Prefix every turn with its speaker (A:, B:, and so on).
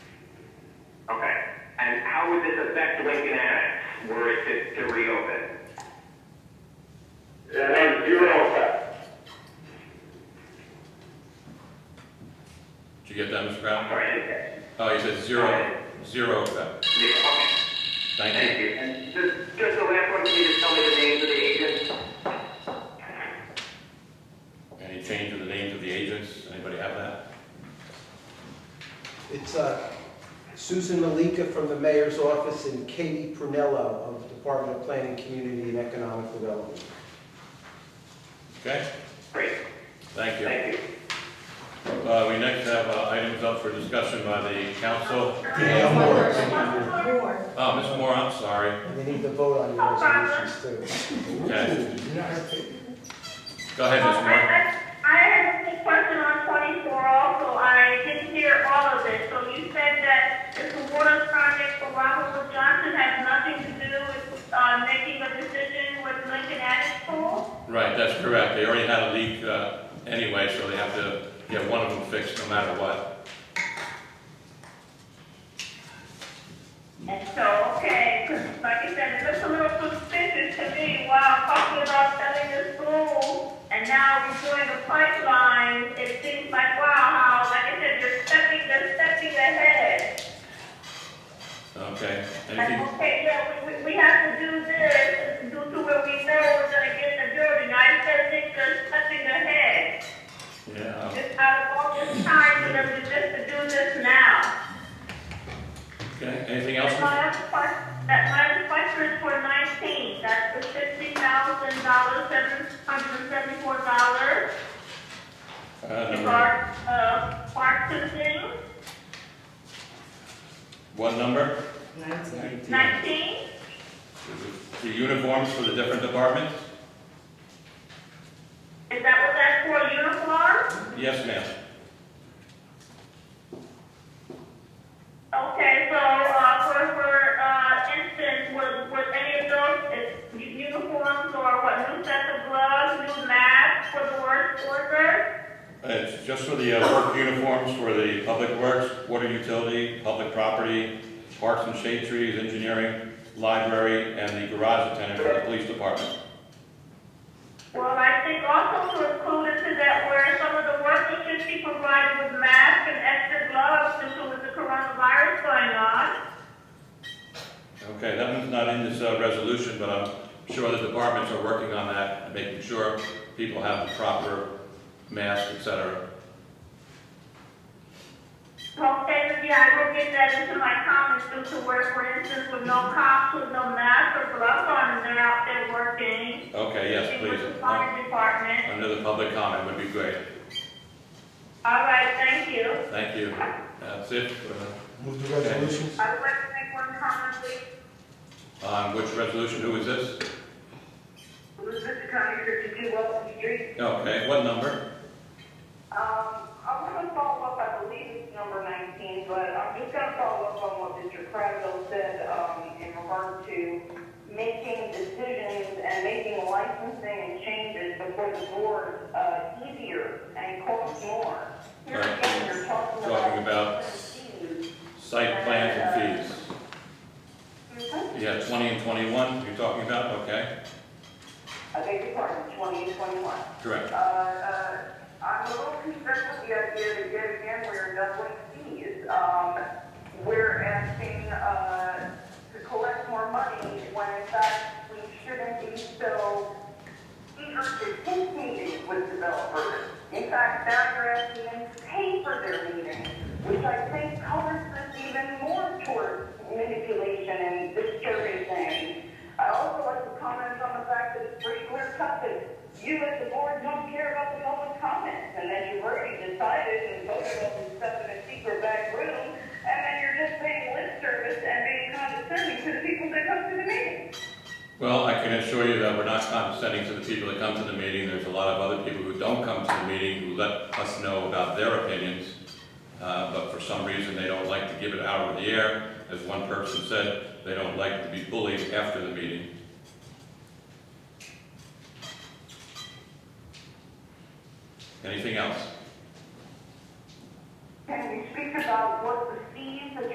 A: would this affect Lincoln Annex were it to to reopen?
B: It has zero effect.
C: Did you get that, Mr. Brown?
A: Sorry, I didn't catch it.
C: Oh, you said zero, zero effect.
A: Yeah, okay.
C: Thank
A: Thank
C: you.
A: you. And just, just the last one, can you just tell me the names of the agents?
C: Any change in the names of the agents? Anybody have that?
D: It's uh, Susan Malika from the mayor's office and Katie Prunello of Department of Planning, Community and Economic Development.
C: Okay,
A: Great,
C: thank you.
A: thank you.
C: Uh, we next have uh, items up for discussion by the council.
D: Yeah,
C: Uh,
D: Moore.
C: Ms. Moore, I'm sorry.
D: And they need to vote on your resolutions too.
C: Okay. Go
E: I
C: ahead, Ms. Moore.
E: I- I have a question on 24 also. I didn't hear all of it. So you said that if the water project for Robert Wood Johnson has nothing to do with uh, making a decision with Lincoln Addis Pool?
C: Right, that's correct. They already had a leak, uh, anyway, so they have to get one of them fixed no matter what.
E: And so, okay, 'cause like I said, it looks a little suspicious to me. Wow, talking about selling this pool and now redoing the pipeline, it seems like, wow, how, like I said, you're stepping, they're stepping ahead.
C: Okay, anything?
E: Okay, yeah, we, we- we have to do this due to where we know we're gonna get the building. I said things are touching the head.
C: Yeah,
E: Just out of all this time, for them to just to do this now.
C: okay. Anything else? Ms.
E: And my other question, that my other question is for nineteen, that's the fifty thousand dollars, seven hundred and seventy-four dollars.
C: Uh, number,
E: For, uh, purchasing,
C: what number?
E: nineteen,
C: The uniforms for the different departments?
E: is that what that's for, uniform?
C: Yes, ma'am.
E: Okay, so, uh, for, for, uh, instance, was, was any of those, is uniforms or what, new sets of gloves, new masks for the work worker?
C: It's just for the uh, work uniforms for the public works, water utility, public property, parks and shade trees, engineering, library, and the garage attendant for the police department.
E: Well, I think also to include into that where some of the workers should be provided with masks and extra gloves due to with the coronavirus going on.
C: Okay, that one's not in this uh, resolution, but I'm sure the departments are working on that, and making sure people have the proper masks, et cetera.
E: Okay, so yeah, I will get that into my comments due to where, for instance, with no cops, with no masks or gloves on, and they're out there working.
C: Okay, yes,
E: With the
C: please. Uh,
E: fire department.
C: Under the public comment would be great.
E: All right, thank you.
C: Thank you. That's it. for-
D: Move the resolutions.
E: I would like to make one comment, please.
C: On Um, which resolution, who is this?
E: Elizabeth County, 52 Wilson Street.
C: Okay, what number?
F: Um, I want to follow up, I believe it's number 19, but I'm just going to follow up on what Mr. Crandall said um, in regard to making decisions and making licensing and changes before the board uh, easier and costs more. Here
C: Right.
F: again, you're talking about.
C: Talking about-
F: fees.
C: Site plans and fees.
F: Mm-hmm.
C: Yeah, 20 and 21 you're talking about, okay,
F: I beg your pardon, 20 and 21.
C: correct.
F: Uh, uh, I'm a little concerned with the idea that yet again we're doubling fees. Um, we're asking, uh, to collect more money when in fact we shouldn't be so eager to take meetings with developers. In fact, now you're asking them to pay for their meetings, which I think covers this even more towards manipulation and disturbing things. I also like to comment on the fact that it's pretty clear cut that you as the board don't care about the public comments, and that you've already decided and voted all this stuff in a secret back room, and then you're just paying lip service and being condescending to the people that come to the meeting.
C: Well, I can assure you that we're not condescending to the people that come to the meeting. There's a lot of other people who don't come to the meeting who let us know about their opinions, uh, but for some reason, they don't like to give it out of the air. As one person said, they don't like to be bullied after the meeting. Anything else?
F: Can we speak about what the fees that